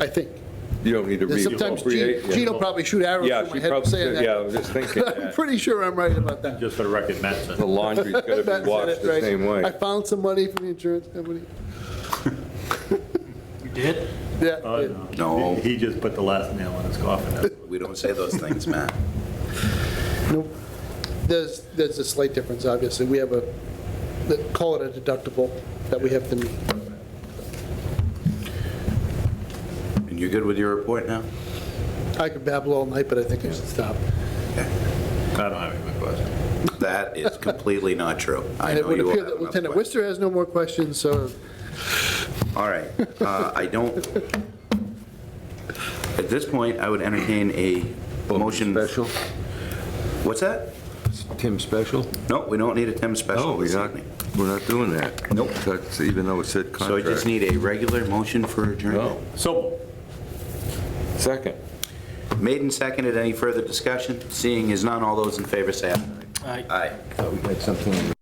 I think. You don't need to read. Sometimes appropriate, Gene yeah. Gene will probably shoot arrows Yeah, through my she head for saying probably, yeah, I that. was just thinking I'm that. pretty sure I'm right about that. Just for the record, Matt said. The laundry's gotta That's be it, washed the right. same I way. found some money from the insurance company. You did? Yeah. Uh, yeah. no. No. He he just put the last nail in his coffin. That's We don't say those things, Matt. Nope. There's, there's a slight difference, obviously. We have a, they call it a deductible that we have to meet. And you good with your report now? I could babble all night, but I think I should stop. I don't have any more questions. That is completely not true. I And it know would you all appear have that enough Lieutenant questions. Worcester has no more questions, so All right, uh, I don't, at this point, I would entertain a motion. Special, What's that? Tim Special? No, we don't need a Tim special No, this we're not, evening. we're not doing that. Oh, Nope. That's, even though it said So I contract. just need a regular motion for adjournment. No, So, second. Made and seconded, any further discussion? Seeing is none, all those in favor say aye. Aye. Aye. Thought we had something.